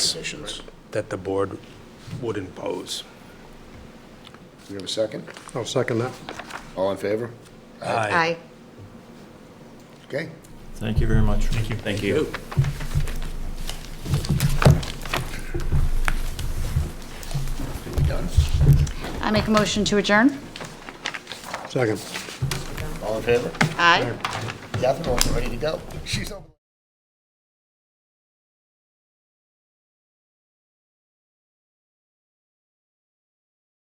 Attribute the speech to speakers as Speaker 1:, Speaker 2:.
Speaker 1: decisions
Speaker 2: that the board would impose.
Speaker 1: You have a second?
Speaker 3: I'll second that.
Speaker 1: All in favor?
Speaker 4: Aye.
Speaker 1: Okay.
Speaker 5: Thank you very much. Thank you. Thank you.
Speaker 1: Done.
Speaker 4: I make a motion to adjourn?
Speaker 3: Second.
Speaker 1: All in favor?
Speaker 4: Aye.
Speaker 1: Catherine, we're ready to go. She's over.